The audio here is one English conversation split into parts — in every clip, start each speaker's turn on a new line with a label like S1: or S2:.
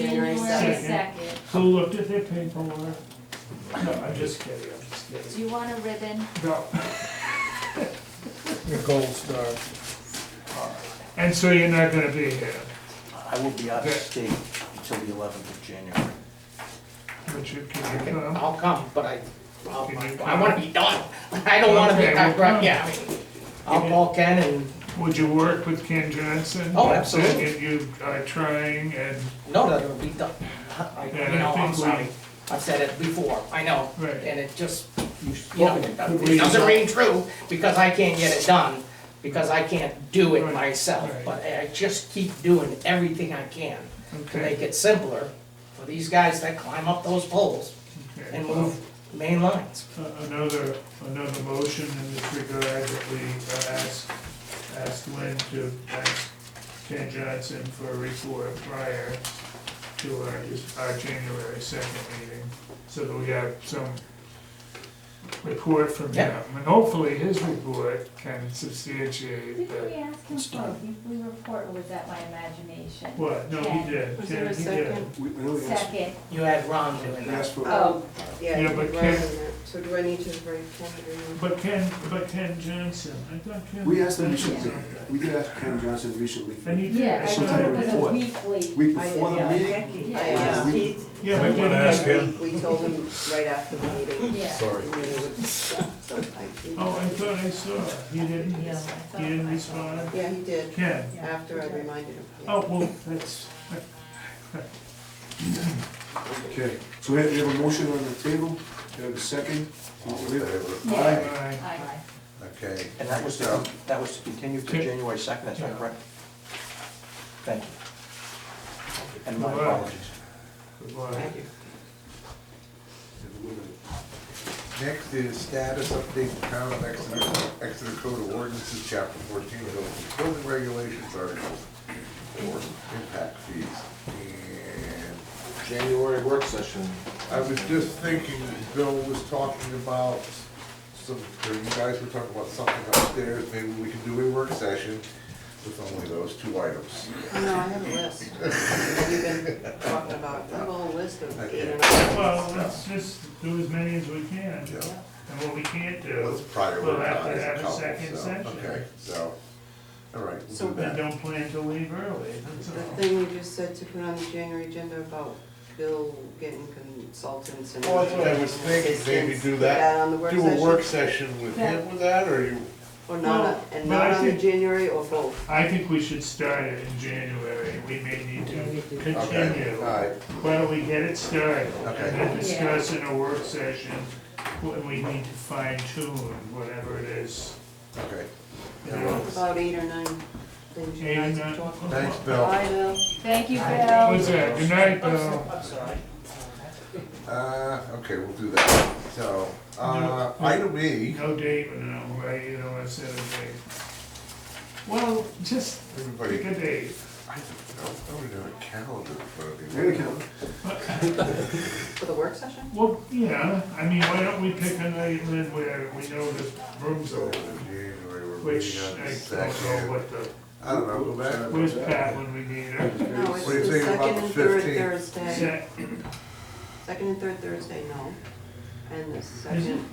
S1: January
S2: January
S1: second.
S2: second.
S3: Who looked at their paperwork? No, I'm just kidding, I'm just
S2: Do
S3: kidding.
S2: you want a ribbon?
S3: No.
S4: a gold star.
S3: And so you're not gonna be here,
S5: I will be out of state until the eleventh of January.
S3: Richard, can uh, you come?
S1: I'll come, but I, I'll-
S3: Can you
S1: I wanna be done. I don't wanna be,
S3: Okay, well,
S1: I,
S3: come.
S1: yeah, I mean, I'll call Ken and,
S3: Would you work with Ken Johnson?
S1: Oh, absolutely.
S3: If you are trying and,
S1: no, that'll be done. I,
S3: Yeah,
S1: you know,
S3: I
S1: I'm
S3: think we-
S1: sorry. I've said it before, I know.
S3: Right.
S1: And it just,
S5: You've
S1: you know,
S5: spoken
S1: it
S5: about
S3: we-
S5: it.
S1: doesn't ring true because I can't get it done, because I can't do it
S3: Right,
S1: myself.
S3: right.
S1: But I just keep doing everything I can to make
S3: okay.
S1: it simpler for these guys that climb up those poles
S3: okay.
S1: and move main lines.
S3: Uh, Another, another motion in this regard that we uh, ask, ask Lynn to ask Ken Johnson for a report prior to our, our January second meeting, so that we have some report from him.
S1: Yeah.
S3: And hopefully his report can substantiate
S2: Didn't we
S3: that.
S2: ask him for a weekly report, or was that my imagination?
S3: What, no,
S2: Ken.
S3: he did.
S6: Was
S3: Ken,
S6: there a
S3: he did.
S6: second?
S7: We, we only asked,
S2: Second,
S1: You had Ron doing
S7: we
S1: that.
S7: asked for.
S6: Oh, yeah,
S3: Yeah,
S6: you're
S3: but
S6: right on
S3: can-
S6: that. So do I need to write Ken or?
S3: But Ken, but Ken Johnson, I thought Ken.
S7: We asked them
S3: Johnson-
S7: recently, we did ask Ken Johnson recently,
S3: And he did.
S2: yeah, I
S7: Sometime
S2: thought it was a
S7: before.
S2: weekly,
S7: week
S6: I did,
S7: before the
S6: Oh, yeah,
S7: meeting.
S6: Becky.
S2: Yeah.
S6: I asked
S7: Yeah.
S6: Pete.
S3: Yeah,
S6: I
S3: we did
S6: asked
S3: ask
S6: him. We told him right after the meeting.
S2: yeah.
S6: And then it was sometime.
S3: Oh, I thought I saw, it. he didn't,
S2: Yeah, I
S3: he
S2: thought
S3: didn't
S2: I
S3: respond.
S6: Yeah, he did,
S3: Ken,
S6: after I reminded him. yeah.
S3: oh, well, that's,
S7: Okay, so we have, we have a motion on the table, we have a second. Oh,
S8: All in favor?
S3: all
S7: Aye.
S3: right.
S2: Aye.
S8: Okay.
S5: And that was, to- that was to continue to
S3: Okay.
S5: January second, that's
S3: Yeah.
S5: right, correct? Thank you. And my
S3: All right.
S5: apologies.
S3: Goodbye.
S6: Thank you.
S8: Next is status update the town of Exeter, Exeter Code of Ordinances, Chapter 14, Building- Building Regulations, Articles for Impact Fees. And
S9: January work session.
S8: I was just thinking, Bill was talking about some, or you guys were talking about something upstairs, maybe we can do a work session with only those two items.
S6: No, I have a list. We've been talking about, I have a whole list of eight or nine.
S3: Well, let's just do as many as we can,
S8: Yeah.
S3: and what we can't
S8: Let's
S3: do, We'll have to
S8: prioritize
S3: have
S8: a
S3: a
S8: couple,
S3: second
S8: so,
S3: session.
S8: okay, so, all right,
S6: So
S8: we'll do
S3: we
S8: that.
S3: don't plan to leave early, that's
S6: The
S3: all.
S6: thing you just said to put on the January agenda about Bill getting consultants and.
S9: Well, that's what I was thinking, maybe do that,
S6: on the work
S9: do a
S6: session?
S9: work session with him with that, or you,
S6: Or not,
S3: Well,
S6: and
S3: but I
S6: not on the
S3: think-
S6: January or both?
S3: I think we should start it in January, we may need to
S8: Okay,
S3: continue.
S8: all right,
S3: Why don't we get it started,
S8: Okay.
S3: and then discuss in a work session when we need to fine tune whatever it is.
S8: okay.
S3: you know.
S6: About eight or nine things you
S3: Eight and
S6: guys
S3: nine-
S6: have talked about.
S8: Thanks, Bill.
S6: I know.
S2: Thank you, Bill.
S3: What's that, good night, Bill.
S8: Uh, okay, we'll do that, so, uh,
S3: No.
S8: item E.
S3: No Dave and no, right, you know, I said a Dave. Well, just
S8: Everybody,
S3: pick a
S8: I
S3: date.
S8: don't, I don't even have a calendar in front of me.
S7: There we go.
S6: For the work session?
S3: Well, yeah, I mean, why don't we pick a night when where we know the room's
S8: So,
S3: open,
S8: January, we're
S3: which
S8: meeting on
S3: I
S8: the
S3: don't know
S8: second.
S3: what the,
S8: I don't know, go back.
S3: where's Pat when we need her?
S6: No, it's
S8: What do you
S6: the
S8: think about
S6: second
S8: the
S6: and third
S8: 15th?
S6: Thursday.
S3: Set-
S6: Second and third Thursday, no. And the
S3: it?
S6: second,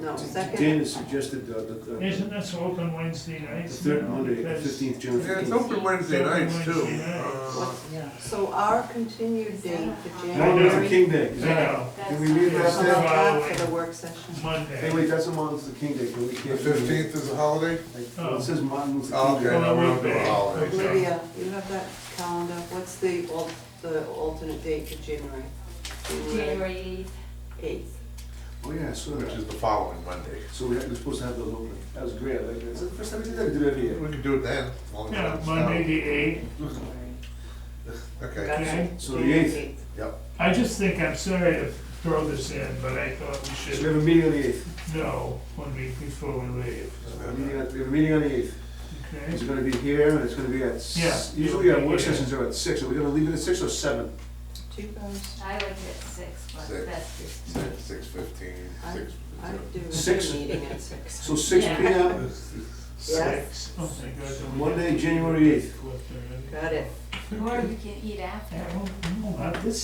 S6: no,
S7: Dan
S6: second,
S7: has suggested uh, that the, the
S3: Isn't this open Wednesday nights?
S7: third
S3: now?
S7: Monday, the
S3: Because-
S7: fifteenth, June
S8: Yeah, it's
S7: fifteenth.
S8: open Wednesday
S3: Open
S8: nights too.
S3: Wednesday nights.
S8: Uh,
S6: so our continued date for
S3: know.
S7: Martin Luther
S6: January.
S7: King Day.
S3: I
S7: is that-
S3: know,
S7: Can we leave
S6: How
S7: that
S6: about
S7: there?
S6: that for the work session?
S7: Hey,
S3: Monday.
S7: wait, that's a Martin Luther King Day, but we
S8: The
S7: can't. do it.
S8: fifteenth is a holiday?
S7: Like, well, It says Martin Luther
S8: Oh,
S7: King
S8: Okay,
S7: Day.
S3: Well,
S8: no, we don't do
S3: okay.
S8: a holiday, so.
S6: Olivia, you have that calendar, what's the al, the alternate date for January?
S2: January eighth.
S6: Eighth.
S7: Oh, yeah, so,
S8: Which is the following Monday.
S7: so we had- we're supposed to have those open. That was great, I like, that's the first time we did that, we did it every year.
S8: We can do it then. as long as
S3: Yeah,
S8: it's
S3: Monday
S8: out.
S3: the eighth,
S8: Okay,
S3: okay?
S7: So the eighth,
S8: yep.
S3: I just think, I'm sorry to throw this in, but I thought we
S7: so we have
S3: should
S7: a meeting on the eighth,
S3: know one week before we leave,
S7: we have a meeting on- we have a meeting on the eighth. It's
S3: okay?
S7: gonna be here, and it's gonna be at, s-
S3: Yeah.
S7: usually our work
S3: Yeah.
S7: sessions are at six, are we gonna leave it at six or seven?
S6: Two hours,
S2: I like it at six, but
S8: Six.
S2: that's just.
S8: Six, six fifteen,
S6: I-
S8: six.
S6: I do
S7: Six.
S6: a meeting at six.
S7: So six
S2: Yeah.
S7: P M,
S3: Six. Oh, thank God.
S7: Monday, January eighth.
S6: Got it.
S2: Or we can eat after.
S3: Yeah, well, no,